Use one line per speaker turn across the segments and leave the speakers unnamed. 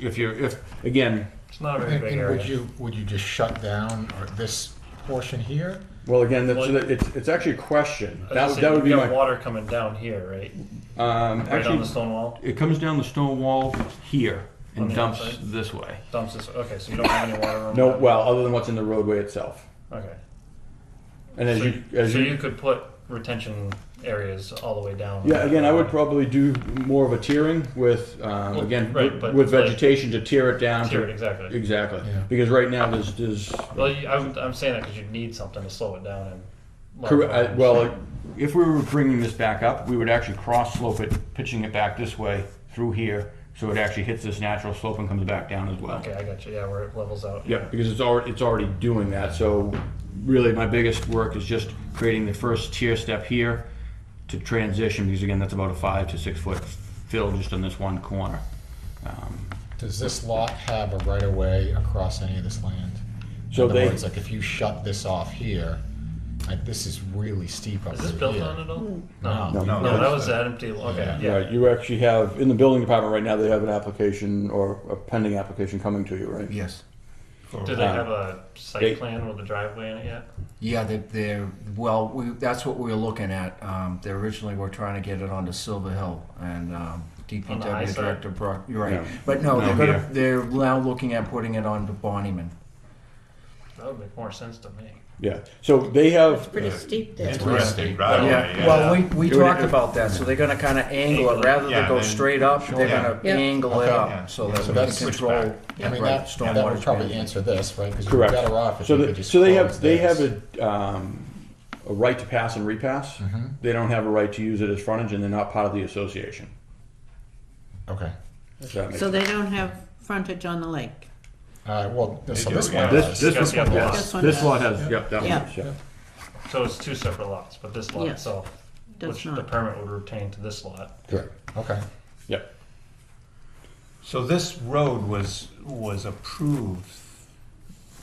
if you're, if, again,
It's not a very
And
big
and would
area.
you, would you just shut down or this portion here?
well, again, that's,
Well-
it's, it's actually a question.
I was
That,
gonna
that
say,
would be
you got
my,
water coming down here, right?
um,
Right on the
actually,
stone wall
it comes down the stone wall here
On
and
the
dumps
outside?
this way.
dumps this. Okay, so you don't have any water. running
No,
down.
well, other than what's in the roadway itself.
Okay.
And as
so
you, as
so you could put retention areas all the way down.
Yeah, again, I would probably do more of a tiering with, um,
Well,
again,
right,
with-
but-
with
but-
vegetation to tear it down. to-
Tier it, exactly.
Exactly,
Yeah.
because right now there's, there's,
Well, you, I'm, I'm saying that because you need something to slow it down and.
corre- I- Uh, well, if we were bringing this back up, we would actually cross slope it, pitching it back this way through here, so it actually hits this natural slope and comes back down as well.
Okay, I got you. Yeah, where it levels out.
Yeah, because it's already, it's already doing that, so really my biggest work is just creating the first tier step here to transition, because again, that's about a five to six foot fill just on this one corner. Um,
Does this lot have a right of way across any of this land?
So
In other
they-
words, like if you shut this off here, like this is really steep up
Is this
through
built
here.
on at all? No.
No.
No, that was that empty. Okay.
Yeah.
Yeah.
Right, you actually have, in the building department right now, they have an application or a pending application coming to you, right?
Yes. For-
Do they have a site
Uh, They-
plan with a driveway in it yet?
Yeah, they- they're, well, we, that's what we were looking at. Um, they originally were trying to get it onto Silver Hill and, um,
On the high
DPW
side?
Director Brock, you're right.
No.
But no,
No,
they're gonna,
here.
they're now looking at putting it onto Bonnyman.
That would make more sense to me.
Yeah, so they have,
Pretty steep there.
It's pretty steep.
right away,
Yeah, well, we, we
It would-
talked about that, so they're gonna kinda
Angle
angle
it.
it, rather
Yeah,
than go
then-
straight up, they're
Yeah.
gonna
Yeah.
angle it
Okay.
up, so that
So
we can
that's-
control.
I mean,
right,
that, that
stormwater
would probably
management.
answer this, right? Because you're
Correct.
better off if
so
you could
they,
just
so they
close
have, they
this.
have a, um, a right to pass and repass.
Mm-hmm.
They don't have a right to use it as frontage and they're not part of the association.
Okay.
Does that make
So
sense?
they don't have frontage on the lake.
All right, well, so
do,
this
yeah.
one
This,
does.
this
Yes,
one,
yeah,
yes.
this one
this
does.
lot has, yep, that one,
Yeah.
does, yeah.
So it's two separate lots, but this lot
Yes.
itself,
Does
which the
not.
permit would retain to this lot.
Correct,
Okay.
yep.
So this road was, was approved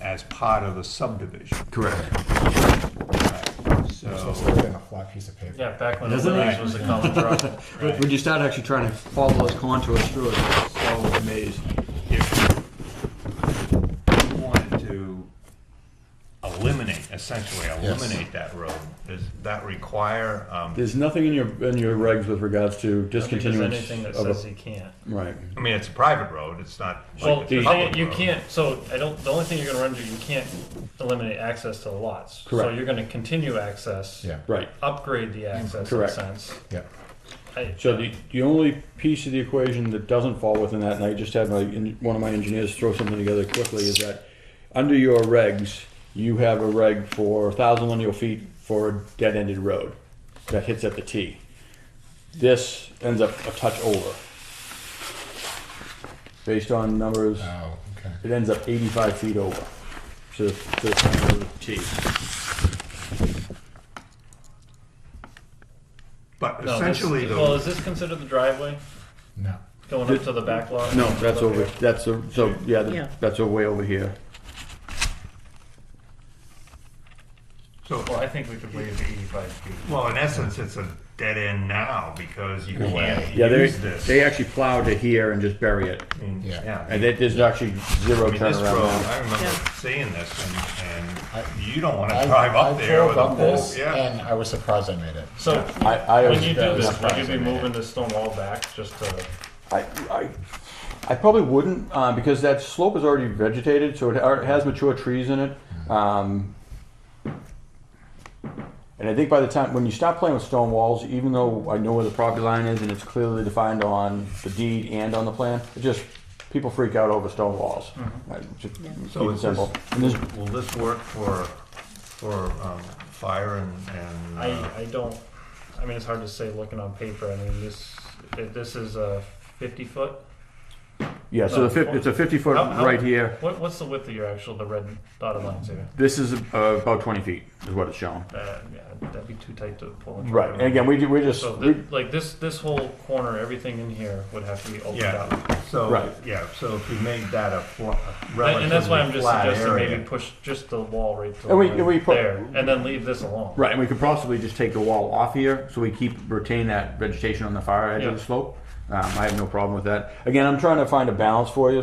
as part of a subdivision,
Correct.
So
so.
it's still been a flat piece of paper.
Yeah, back when the
Doesn't it?
Willys was a common driveway. Right.
Would you start actually trying to follow those contours through it?
So amazed if you wanted to eliminate, essentially
Yes.
eliminate that road, does that require, um,
There's nothing in your, in your regs with regards to
I don't think there's
discontinuance
anything that
of
says
a,
you can't.
right.
I mean, it's a private road, it's not
Well,
like
the
a
thing-
public
you
road.
can't. So I don't. The only thing you're going to run into, you can't eliminate access to the lots. So
Correct.
you're going to continue access.
Yeah.
Right.
Upgrade the access
Correct.
in a sense.
Yeah.
I,
So the, the only piece of the equation that doesn't fall within that, and I just had my, en- one of my engineers throw something together quickly, is that under your regs, you have a reg for thousand linear feet for a dead-ended road that hits at the T. This ends up a touch over. Based on numbers,
Oh, okay.
it ends up eighty-five feet over to, to the front of the T.
But
no,
essentially
this, Well,
though,
is this considered the driveway
No.
going up to the back lot?
No, that's over, that's, a- so, yeah,
Yeah.
the- that's a way over here.
so,
Well, I think we could waive the 85 feet.
well, in essence, it's a dead end now because you can't
Yeah, they,
use this.
they actually plow to here and just bury it.
I mean,
Yeah.
And that there's actually zero
I mean, this road,
turnaround.
I remember
Yeah.
seeing this, and,
I-
and you don't want
I-
to drive
I
up there
drove
with a
up
pole.
this,
Yeah.
And I was surprised I made it.
So
I, I,
when you do
always-
that was
this, would you be
surprising,
moving the stone wall back just to?
I, I, I probably wouldn't, uh, because that slope is already vegetated, so it ar- it has mature trees in it. Um, and I think by the time, when you stop playing with stone walls, even though I know where the property line is and it's clearly defined on the deed and on the plan, it just, people freak out over stone walls. Uh, just
Mm-hmm. So
Keep it
is this,
simple. And this-
will this work for, for, um, fire and, and?
I,
uh,
I don't. I mean, it's hard to say looking on paper. I mean, this it- this is a 50 foot.
Yeah, so the fif- it's a fifty foot
How- how-
right here.
What, what's the width of your actual the red dotted lines here?
This is uh, about twenty feet is what it's shown.
Uh, yeah, that'd be too tight to pull. it.
Right, and again, we, ju- we just,
So
we,
th- like this this whole corner, everything in here would have to be opened up.
Yeah,
Right.
so, yeah, so if we made that a fl- a
And, and that's why I'm
relatively
just
flat
suggesting maybe
area.
push just the wall right to
And we-
the-
and we put-
there, and then leave this alone.
right, and we could possibly just take the wall off here, so we keep, retain that vegetation on the far edge of
Yeah.
the slope. Um, I have no problem with that. Again, I'm trying to find a balance for you,